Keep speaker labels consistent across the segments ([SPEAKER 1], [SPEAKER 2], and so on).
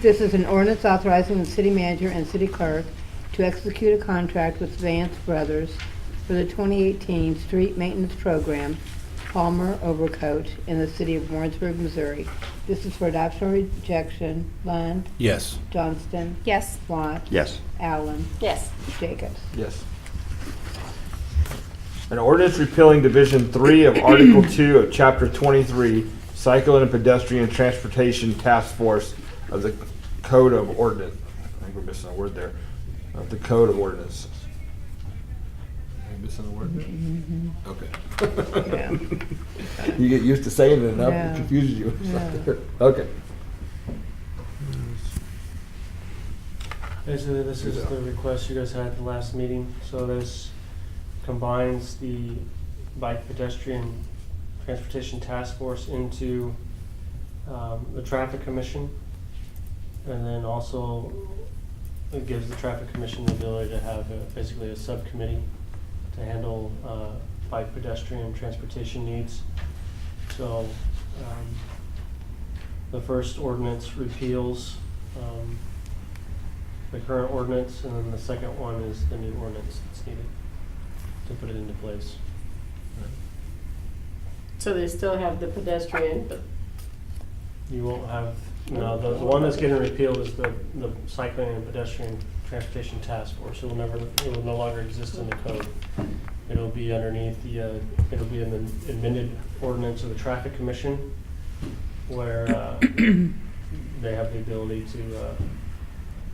[SPEAKER 1] This is an ordinance authorizing the city manager and city clerk to execute a contract with Vance Brothers for the 2018 street maintenance program, Palmer Overcoat, in the city of Warrensburg, Missouri. This is for adoption or rejection. Lund,
[SPEAKER 2] Yes.
[SPEAKER 1] Johnston,
[SPEAKER 3] Yes.
[SPEAKER 1] Watts.
[SPEAKER 4] Yes.
[SPEAKER 1] Allen,
[SPEAKER 3] Yes.
[SPEAKER 1] Jacobs.
[SPEAKER 5] Yes. An ordinance repealing Division Three of Article Two of Chapter Twenty-three, Cycle and Pedestrian Transportation Task Force of the Code of Ordinance. I think we're missing a word there. Of the Code of Ordinances. Am I missing a word
[SPEAKER 1] Mm-hmm.
[SPEAKER 5] there? Okay. You get used to saying it enough,
[SPEAKER 1] Yeah.
[SPEAKER 5] it confuses you.
[SPEAKER 1] Yeah.
[SPEAKER 5] Okay.
[SPEAKER 6] Basically, this is the request you guys had at the last meeting, so this combines the bike pedestrian transportation task force into um, the traffic commission. And then also it gives the traffic commission the ability to have a- basically a subcommittee to handle uh, bike pedestrian transportation needs. So um, the first ordinance repeals um, the current ordinance, and then the second one is the new ordinance that's needed to put it into place.
[SPEAKER 3] So they still have the pedestrian, but
[SPEAKER 6] You won't have, no, the the one that's getting repealed is the, the cycling and pedestrian transportation task force. It will never, it will no longer exist in the code. It'll be underneath the, uh, it'll be in the amended ordinance of the traffic commission where, uh, they have the ability to, uh,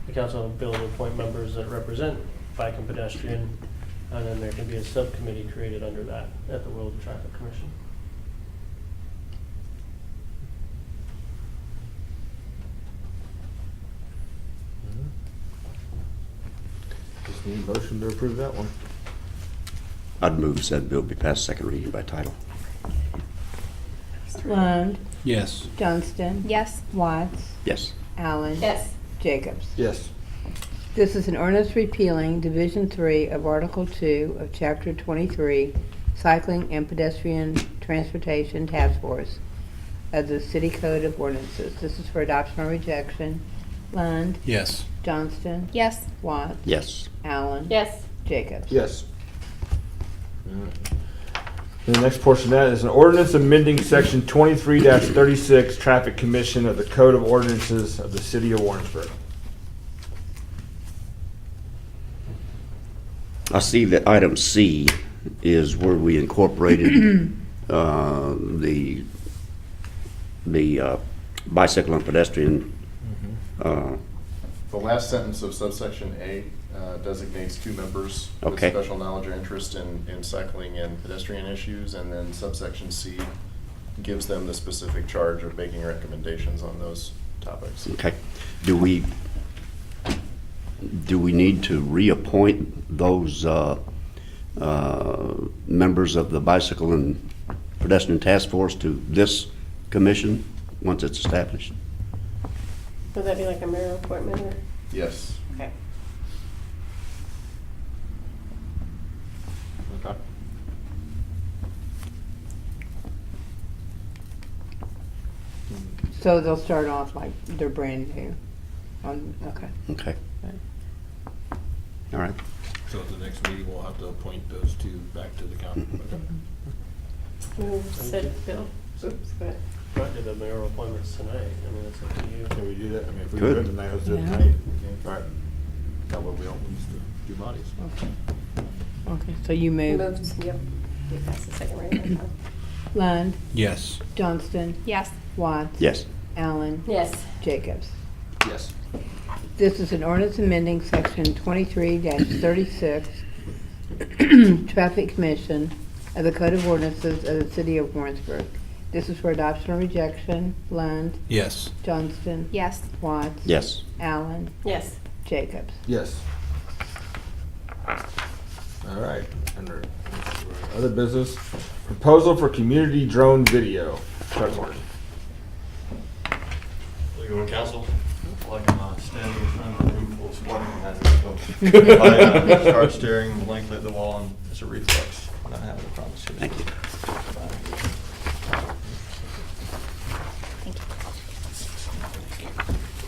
[SPEAKER 6] the council will be able to appoint members that represent bike and pedestrian. And then there can be a subcommittee created under that at the World Traffic Commission.
[SPEAKER 5] Just need a motion to approve that one.
[SPEAKER 4] I'd move said bill be passed second reading by title.
[SPEAKER 3] Uh,
[SPEAKER 1] Lund,
[SPEAKER 2] Yes.
[SPEAKER 1] Johnston,
[SPEAKER 3] yes.
[SPEAKER 1] Watts,
[SPEAKER 4] Yes.
[SPEAKER 1] Allen.
[SPEAKER 3] Yes.
[SPEAKER 1] Jacobs.
[SPEAKER 5] Yes.
[SPEAKER 1] This is an ordinance repealing Division Three of Article Two of Chapter Twenty-three, Cycling and Pedestrian Transportation Task Force of the City Code of Ordinances. This is for adoption or rejection. Lund,
[SPEAKER 2] Yes.
[SPEAKER 1] Johnston,
[SPEAKER 3] Yes.
[SPEAKER 1] Watts,
[SPEAKER 4] Yes.
[SPEAKER 1] Allen,
[SPEAKER 3] Yes.
[SPEAKER 1] Jacobs.
[SPEAKER 5] Yes. And the next portion of that is an ordinance amending section twenty-three thirty-six, traffic commission of the code of ordinances of the city of Warrensburg.
[SPEAKER 4] I see that item C is where we incorporated uh, the, the uh, bicycle and pedestrian. uh,
[SPEAKER 7] The last sentence of subsection A uh, designates two members with
[SPEAKER 4] Okay.
[SPEAKER 7] special knowledge or interest in, in cycling and pedestrian issues, and then subsection C gives them the specific charge of making recommendations on those topics.
[SPEAKER 4] Okay. Do we, do we need to reappoint those uh, uh, members of the bicycle and pedestrian task force to this commission once it's established?
[SPEAKER 3] Would that be like a mayor appointment or?
[SPEAKER 7] Yes.
[SPEAKER 3] Okay.
[SPEAKER 5] Okay.
[SPEAKER 1] So they'll start off like they're brand new. Um, okay.
[SPEAKER 4] Okay. All right.
[SPEAKER 8] So at the next meeting, we'll have to appoint those two back to the county.
[SPEAKER 3] Move said bill. Oops, go ahead.
[SPEAKER 6] Not do the mayoral appointments tonight, I mean, that's up to you.
[SPEAKER 5] Can we do that? I mean, if we do
[SPEAKER 4] Good.
[SPEAKER 5] it tonight, let's do it
[SPEAKER 1] Yeah.
[SPEAKER 5] tonight. All right. That way we don't lose the two bodies.
[SPEAKER 1] Okay. Okay. So you
[SPEAKER 4] Um,
[SPEAKER 1] move.
[SPEAKER 3] Moved, yep. You passed the second reading.
[SPEAKER 1] Lund,
[SPEAKER 2] Yes.
[SPEAKER 1] Johnston,
[SPEAKER 3] Yes.
[SPEAKER 1] Watts,
[SPEAKER 4] Yes.
[SPEAKER 1] Allen,
[SPEAKER 3] Yes.
[SPEAKER 1] Jacobs.
[SPEAKER 5] Yes.
[SPEAKER 1] This is an ordinance amending section twenty-three thirty-six, Traffic Commission of the Code of Ordinances of the City of Warrensburg. This is for adoption or rejection. Lund,
[SPEAKER 2] Yes.
[SPEAKER 1] Johnston,
[SPEAKER 3] Yes.
[SPEAKER 1] Watts.
[SPEAKER 4] Yes.
[SPEAKER 1] Allen,
[SPEAKER 3] Yes.
[SPEAKER 1] Jacobs.
[SPEAKER 5] Yes. All right, under other business, proposal for community drone video. Chuck Martin.
[SPEAKER 9] Good morning, council. I feel Like I'm uh, standing in front of a room full of sparking
[SPEAKER 5] Oh,
[SPEAKER 9] hazards. so I uh, start staring blankly at the wall and it's a reflex. Not having a problem.
[SPEAKER 4] Thank you.